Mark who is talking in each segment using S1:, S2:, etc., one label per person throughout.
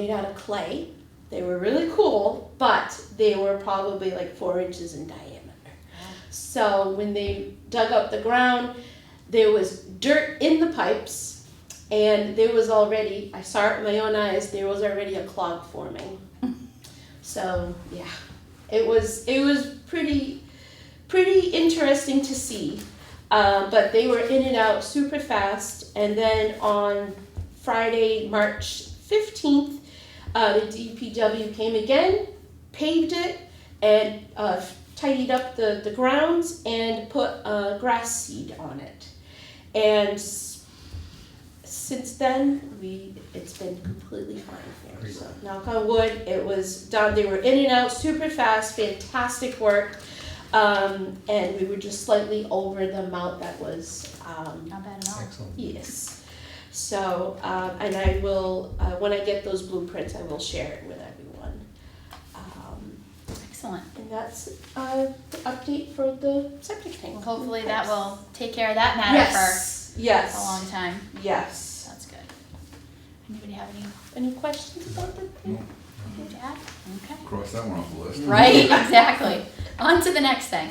S1: made out of clay. They were really cool, but they were probably like four inches in diameter. So when they dug up the ground, there was dirt in the pipes, and there was already, I saw it with my own eyes, there was already a clog forming. So yeah, it was it was pretty pretty interesting to see. Uh, but they were in and out super fast, and then on Friday, March fifteenth, uh, the DPW came again, paved it, and uh, tidied up the, the grounds and put a grass seed on it. And s- since then, we it's been completely fine here. So knock on wood, it was done. They were in and out super fast, fantastic work. Um, and we were just slightly over the amount that was um,
S2: Not bad at all.
S3: Excellent.
S1: Yes. So, um, and I will, uh, when I get those blueprints, I will share it with everyone. Um,
S2: Excellent.
S1: and that's uh, the update for the septic tank.
S2: Well, hopefully that will take care of that matter
S1: Yes.
S2: for a long
S1: Yes.
S2: time.
S1: Yes.
S2: That's good. Anybody have any
S1: Any questions about that?
S2: anything to add? Okay.
S4: Cross that one off the list.
S2: Right, exactly. On to the next thing.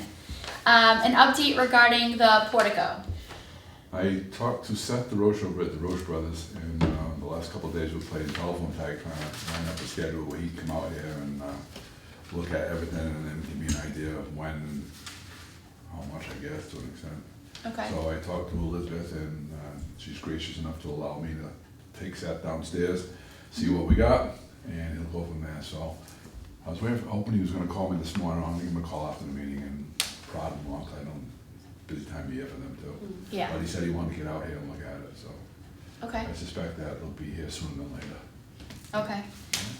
S2: Um, an update regarding the portico.
S4: I talked to Seth DeRoche over at the Roche Brothers, and uh, the last couple of days we played telephone tag, trying to line up a schedule where he'd come out here and uh, look at everything and then give me an idea of when and how much, I guess, to an extent.
S2: Okay.
S4: So I talked to Elizabeth, and uh, she's gracious enough to allow me to take Seth downstairs, see what we got, and he'll go from there. So I was waiting, for, hoping he was going to call me this morning. I'm going to give him a call after the meeting and prod him along 'cause I know busy time of year for them too.
S2: Yeah.
S4: But he said he wanted to get out here and look at it, so
S2: Okay.
S4: I suspect that it'll be here sooner than later.
S2: Okay.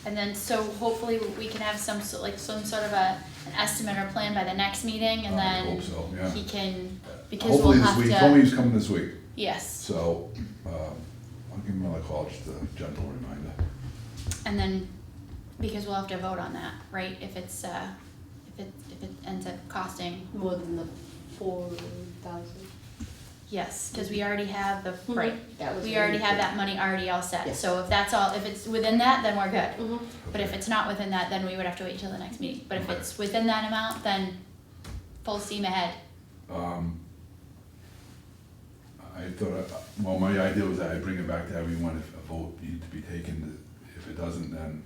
S2: And then, so hopefully we can have some, so- like, some sort of a, an estimate or plan by the next meeting and
S4: I
S2: then
S4: Hope so, yeah.
S2: he can, because we'll
S4: Hopefully this
S2: have
S4: week,
S2: to-
S4: he told me he's coming this week,
S2: yes.
S4: so um, I'll give him another call, just a gentle reminder.
S2: And then, because we'll have to vote on that, right, if it's, uh, if it, if it ends up costing,
S1: More than the four thousand.
S2: yes, cause we already have the, right,
S1: That was
S2: we already
S1: really
S2: have that money already all set,
S1: Mhm. Yes.
S2: so if that's all, if it's within that, then we're good.
S1: good. Mhm.
S2: But if it's not within that, then we would have to wait till the next meeting, but if
S4: Okay.
S2: it's within that amount, then full steam ahead,
S4: Um, I thought, uh, well, my idea was that I bring it back to everyone if a vote needs to be taken. If it doesn't, then,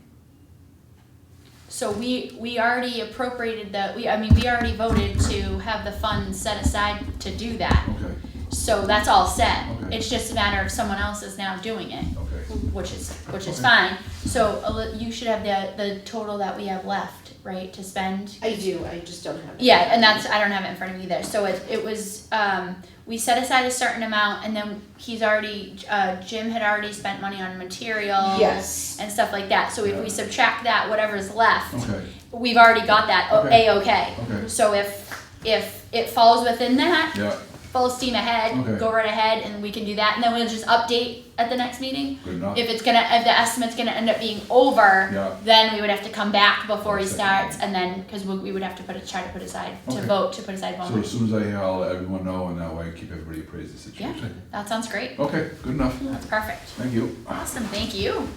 S2: so we, we already appropriated the, we, I mean, we already voted to have the funds set aside to do that,
S4: okay,
S2: so that's all set.
S4: Okay.
S2: It's just a matter of someone else is now doing it.
S4: okay,
S2: which is which is
S4: Okay.
S2: fine. So a li- you should have the the total that we have left, right, to spend.
S1: I do, I just don't have it.
S2: Yeah, and that's I don't have it in front of me either. So it it was um, we set aside a certain amount, and then he's already uh, Jim had already spent money on materials
S1: Yes.
S2: and stuff like that. So if we
S4: Yeah.
S2: subtract that, whatever's left,
S4: okay,
S2: we've already got that
S4: Okay.
S2: a okay.
S4: okay,
S2: So if if it falls within that,
S4: yeah,
S2: full steam ahead,
S4: Okay.
S2: go right ahead, and we can do that, and then we'll just update at the next meeting
S4: good enough.
S2: if it's gonna if the estimate's gonna end up being over
S4: Yeah.
S2: then we would have to come back before he
S4: Okay.
S2: starts and then because we, we would have to put a try to put aside to
S4: Okay.
S2: vote to put aside one
S4: So
S2: more.
S4: as soon as I hear, I'll let everyone know, and that way I keep everybody appraised of the situation.
S2: that sounds great
S4: Okay, good enough,
S2: that's perfect
S4: thank you.
S2: awesome thank you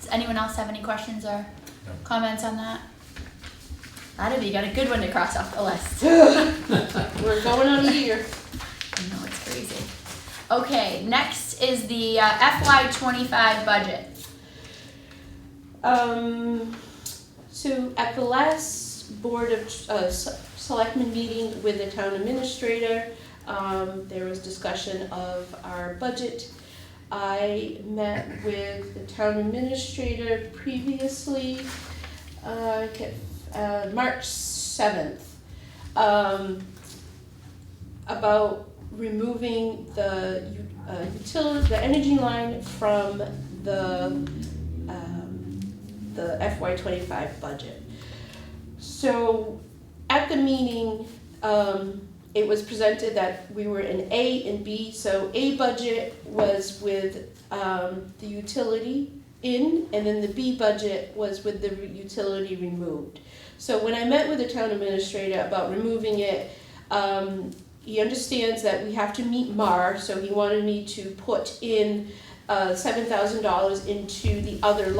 S2: does anyone else have any questions or
S3: No.
S2: comments on that that'd be got a good one to cross off the list
S1: We're going on a year.
S2: I know it's crazy okay next is the uh, fy25 budget
S1: Um, so at the last board of, uh, S- selectmen meeting with the town administrator, um, there was discussion of our budget. I met with the town administrator previously, uh, ca- uh, March seventh, um, about removing the, u- uh, utility, the energy line from the, um, the FY twenty-five budget. So at the meeting, um, it was presented that we were in A and B, so A budget was with, um, the utility in, and then the B budget was with the re- utility removed. So when I met with the town administrator about removing it, um, he understands that we have to meet MAR, so he wanted me to put in, uh, seven thousand dollars into the other